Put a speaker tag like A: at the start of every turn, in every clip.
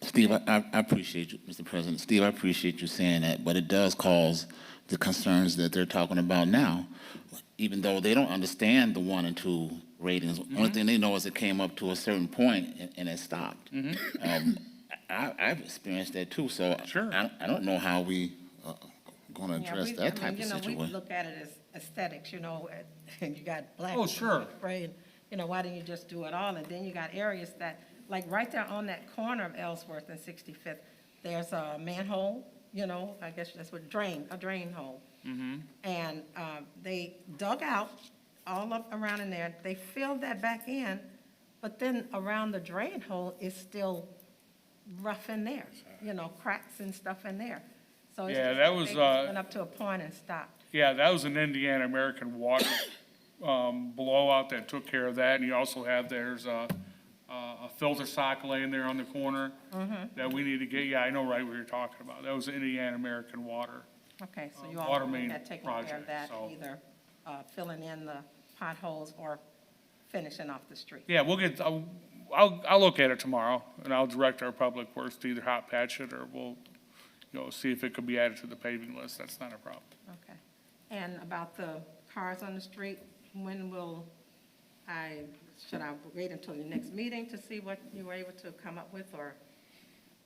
A: Steve, I- I, I appreciate you, Mr. President. Steve, I appreciate you saying that, but it does cause the concerns that they're talking about now, even though they don't understand the one and two ratings. Only thing they know is it came up to a certain point and, and it stopped. Um, I, I've experienced that too, so
B: Sure.
A: I, I don't know how we uh, gonna
C: Yeah,
A: address
C: we- I
A: that
C: mean,
A: type of
C: you know, we
A: situation.
C: Look at it as aesthetics, you know, and you got black.
B: Oh, sure.
C: Right, you know, why didn't you just do it all? And then you got areas that, like, right there on that corner of Ellsworth and 65th, there's a manhole, you know, I guess that's what, drain, a drain hole.
B: Mm-hmm.
C: And um, they dug out all up around in there, they filled that back in, but then around the drain hole is still rough in there, you know, cracks and stuff in there. So it's
B: Yeah,
C: just-
B: that was,
C: they just
B: uh,
C: Went up to a point and stopped.
B: Yeah, that was an Indiana American water um, blowout that took care of that. And you also have, there's a, a filter sock laying there on the corner that we need to get, yeah, I know right what you're talking about. That was Indiana American Water.
C: Okay, so
B: Uh,
C: you
B: water
C: all
B: main
C: had taken care
B: project,
C: of that,
B: so-
C: either uh, filling in the potholes or finishing off the street.
B: Yeah, we'll get, I'll, I'll I'll look at it tomorrow and I'll direct our public works to either hot patch it or we'll, you know, see if it could be added to the paving list. That's not a problem.
C: Okay. And about the cars on the street, when will I, should I wait until the next meeting to see what you were able to come up with? Or,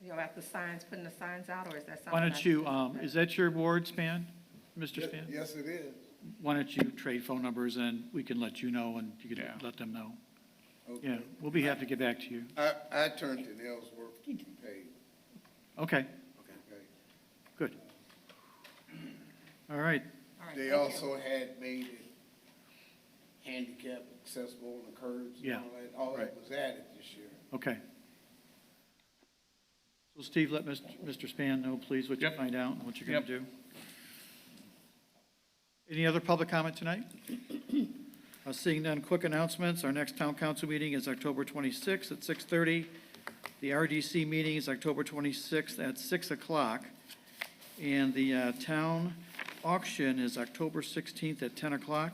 C: you know, after signs, putting the signs out, or is that something?
D: Why
C: I
D: don't you,
C: should-
D: um, is that your ward, Span? Mr. Span?
E: Yes, it is.
D: Why don't you trade phone numbers and we can let you know and you can
B: Yeah.
D: let them know? Yeah,
E: Okay.
D: we'll be happy to get back to you.
E: I, I turned to Ellsworth to pay,
D: Okay,
E: okay?
D: good. All right,
C: All right,
E: They
C: thank you.
E: also had made it handicap accessible on the curbs and
D: Yeah,
E: all that. All that
D: right.
E: was added this year.
D: okay. So Steve, let Mr. Mr. Span know, please, what you
B: Yep.
D: find out and what you're going
B: Yep.
D: to do. Any other public comment tonight? Uh, Seeing none, quick announcements. Our next town council meeting is October 26th at 6:30. The RDC meeting is October 26th at 6 o'clock. And the uh, town auction is October 16th at 10 o'clock.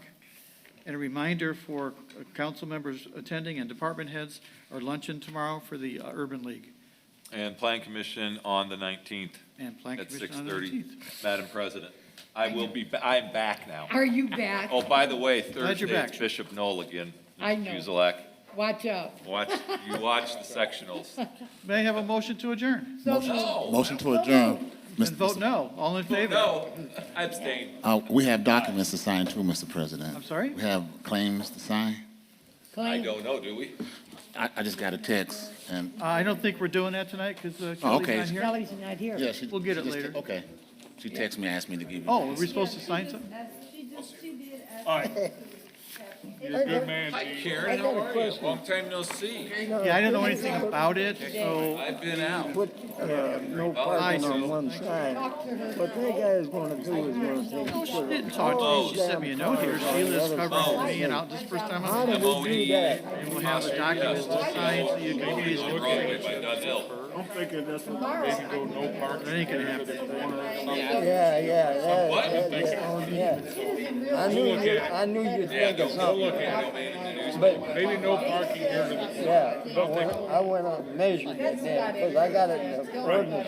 D: And a reminder for uh, council members attending and department heads, our luncheon tomorrow for the uh, Urban League
F: And Plan Commission on the 19th
D: and Plan
F: at
D: Commission on the 19th.
F: 6:30. Madam President, I will be, ba- I'm back now.
G: Are you back?
F: Oh, by the way,
D: Glad you're
F: Thursday, it's
D: back.
F: Bishop Knoll again.
G: I know.
F: Kuzelak.
G: Watch out.
F: Watch, you watch the sectionals.
D: May I have a motion to adjourn?
G: So
A: Motion to adjourn. Mr.
D: And vote no, all in favor?
F: No, I abstain.
A: Uh, we have documents to sign too, Mr. President.
D: I'm sorry?
A: We have claims to sign.
F: I
G: claim-
F: don't know, do we?
A: I, I just got a text and,
D: Uh, I don't think we're doing that tonight because
A: Oh,
D: Kelly's
A: okay.
D: not here.
G: Kelly's not here.
A: yeah, she.
D: We'll get
A: she
D: it
A: just-
D: later.
A: Okay. She texted me, asked me to give you.
D: Oh, are we supposed to sign something?
B: All right. You're a good man,
F: Hi,
B: Gene.
F: Karen, how are you? Long time no see.
D: Yeah, I didn't know anything about it, so,
F: I've been out.
H: put, uh, no parking on one side. What that guy's gonna do is gonna say.
D: no, Oh, she didn't talk to me, she sent me a note here, Sheila's covering me, and I'll, this is the first time
H: Oh. How
D: I'm,
H: did
F: MOE.
H: we do that?
D: and we'll have the documents to sign, so you can please look at it.
F: Broadway by Dunhill.
H: I'm thinking that's.
D: That ain't gonna happen.
H: Yeah, yeah, that,
F: What?
H: that, that, oh, yeah. I knew, you- I knew you'd think of something, but,
B: Maybe no parking here to the
H: yeah, I went, I went out and measured it then, 'cause I got it in the ordinance